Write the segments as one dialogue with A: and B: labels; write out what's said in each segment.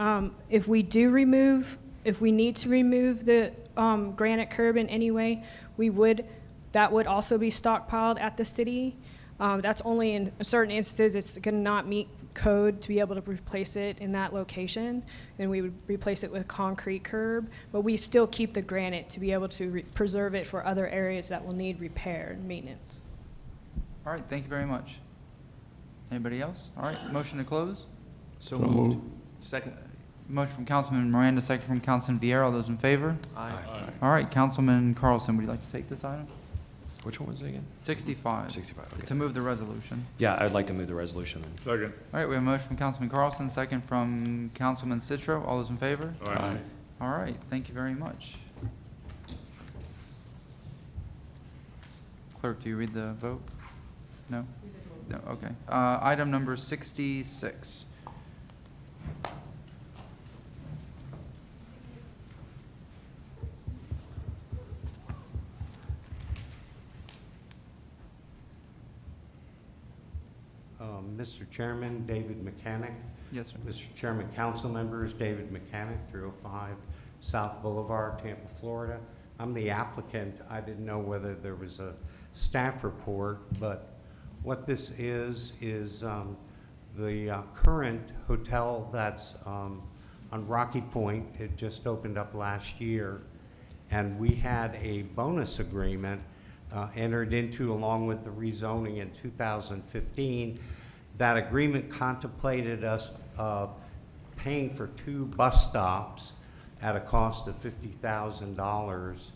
A: um, if we do remove, if we need to remove the um, granite curb in any way, we would, that would also be stockpiled at the city. Um, That's only in certain instances, it's going to not meet code to be able to replace it in that location. Then we would replace it with concrete curb, but we still keep the granite to be able to re- preserve it for other areas that will need repair and maintenance.
B: All right, thank you very much. Anybody else? All right, motion to close?
C: So moved.
B: Second. Motion from Councilman Miranda, second from Councilman Vieira. All those in favor?
C: Aye.
B: All right, Councilman Carlson, would you like to take this item?
C: Which one was it again?
B: Sixty-five,
C: 65,
B: to
C: okay.
B: move the resolution.
C: Yeah, I'd like to move the resolution. then.
D: Second.
B: All right, we have a motion from Councilman Carlson, second from Councilman Citro. All those in favor?
D: Aye.
B: All right, thank you very much. Clerk, do you read the vote? No? No, okay. Uh, Item number 66.
E: Um, Mr. Chairman, David Mechanic.
B: Yes, sir.
E: Mr. Chairman, council members, David Mechanic, 305 South Boulevard, Tampa, Florida. I'm the applicant. I didn't know whether there was a staff report, but what this is, is um, the uh, current hotel that's um, on Rocky Point. It just opened up last year. And we had a bonus agreement uh, entered into along with the rezoning in 2015. That agreement contemplated us uh, paying for two bus stops at a cost of $50,000.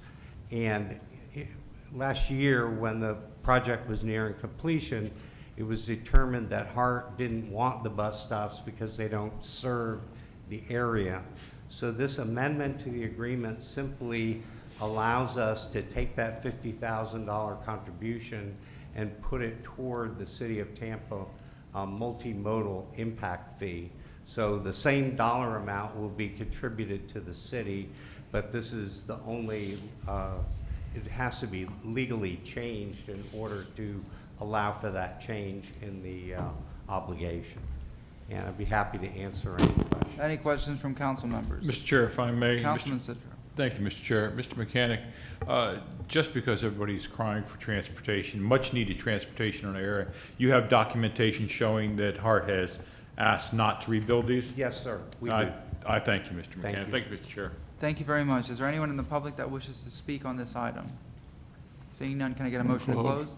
E: And it- last year, when the project was nearing completion, it was determined that Hart didn't want the bus stops because they don't serve the area. So this amendment to the agreement simply allows us to take that fifty thousand dollar contribution and put it toward the city of Tampa um, multimodal impact fee. So the same dollar amount will be contributed to the city, but this is the only, uh, it has to be legally changed in order to allow for that change in the uh, obligation. And I'd be happy to answer any questions.
B: Any questions from council members?
D: Mr. Chair, if I may. Mr.
B: Councilman Citro.
D: Thank you, Mr. Chair. Mr. Mechanic, uh, just because everybody's crying for transportation, much-needed transportation in our area, you have documentation showing that Hart has asked not to rebuild these?
E: Yes, sir, we
D: I-
E: do.
D: I thank you, Mr. Mechanic.
E: you.
D: Thank you, Mr. Chair.
B: Thank you very much. Is there anyone in the public that wishes to speak on this item? Seeing none, can I get a motion to close?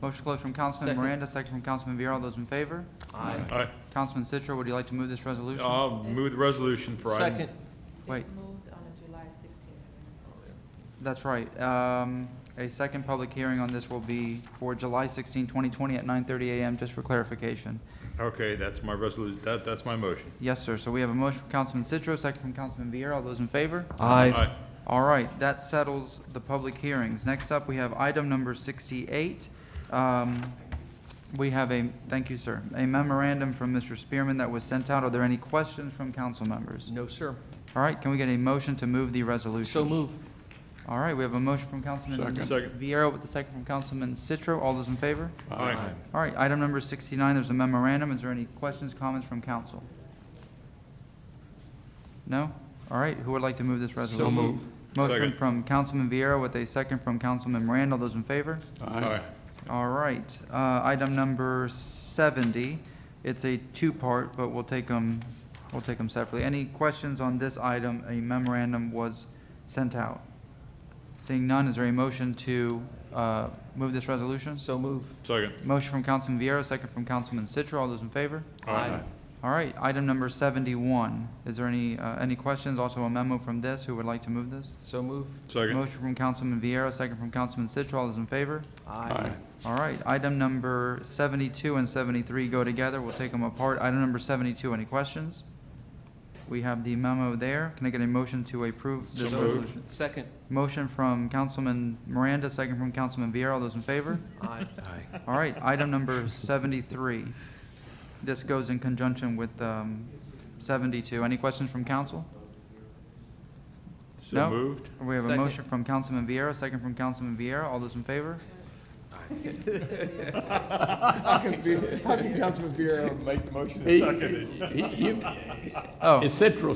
B: Motion to close from Councilman Miranda, second from Councilman Vieira. All those in favor?
D: Aye.
B: Councilman Citro, would you like to move this resolution?
D: I'll move the resolution for item. Second.
B: Wait.
F: It's moved on a July 16th.
B: That's right. Um, A second public hearing on this will be for July 16, 2020 at 9:30 a.m., just for clarification.
D: Okay, that's my resolution, that, that's my motion.
B: Yes, sir. So we have a motion from Councilman Citro, second from Councilman Vieira. All those in favor?
D: Aye.
B: All right, that settles the public hearings. Next up, we have item number 68. Um, We have a, thank you, sir, a memorandum from Mr. Spearman that was sent out. Are there any questions from council members?
G: No, sir.
B: All right, can we get a motion to move the resolution?
G: So move.
B: All right, we have a motion from Councilman
D: Second. Second.
B: Vieira with the second from Councilman Citro. All those in favor?
D: Aye.
B: All right, item number 69, there's a memorandum. Is there any questions, comments from council? No? All right, who would like to move this resolution?
G: move.
B: Motion
D: Second.
B: from Councilman Vieira with a second from Councilman Miranda. All those in favor?
D: Aye.
B: All right, uh, item number 70. It's a two-part, but we'll take them, we'll take them separately. Any questions on this item? A memorandum was sent out. Seeing none, is there a motion to uh, move this resolution?
G: So move.
D: Second.
B: Motion from Councilman Vieira, second from Councilman Citro. All those in favor? All right, item number 71. Is there any, uh, any questions? Also a memo from this. Who would like to move this?
G: So move.
D: Second.
B: Motion from Councilman Vieira, second from Councilman Citro. All those in favor?
G: Aye.
B: All right, item number 72 and 73 go together. We'll take them apart. Item number 72, any questions? We have the memo there. Can I get a motion to approve this
G: So
B: resolution?
G: moved. Second.
B: Motion from Councilman Miranda, second from Councilman Vieira. All those in favor?
G: Aye.
B: All right, item number 73. This goes in conjunction with um, 72. Any questions from council?
D: So
B: No.
D: moved.
B: We have a
G: Second.
B: motion from Councilman Vieira, second from Councilman Vieira. All those in favor?
G: How can Councilman Bureau make the motion?
H: He- he-
B: Oh.
H: It's Central